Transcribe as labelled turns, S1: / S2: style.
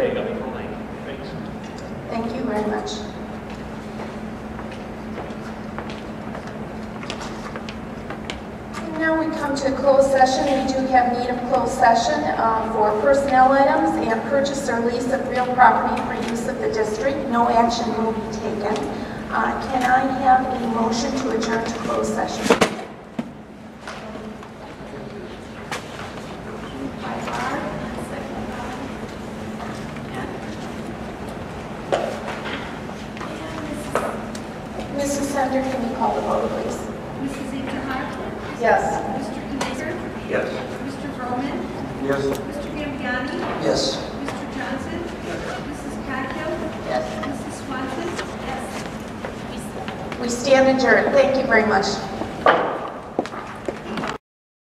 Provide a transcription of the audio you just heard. S1: very much. Now we come to closed session. We do have need of closed session um, for personnel items and purchase or lease of real property for use of the district. No action will be taken. Uh, Can I have a motion to adjourn to closed session? By Barr, second by- Mrs. Sender, can you call the vote, please?
S2: Mrs. Ethan Hawke?
S1: Yes.
S2: Mr. Kniger?
S3: Yes.
S2: Mr. Roman?
S3: Yes.
S2: Mr. Gambiani?
S3: Yes.
S2: Mr. Johnson? Mrs. Coghill? Yes. Mrs. Swanson? Yes.
S1: We stand adjourned. Thank you very much.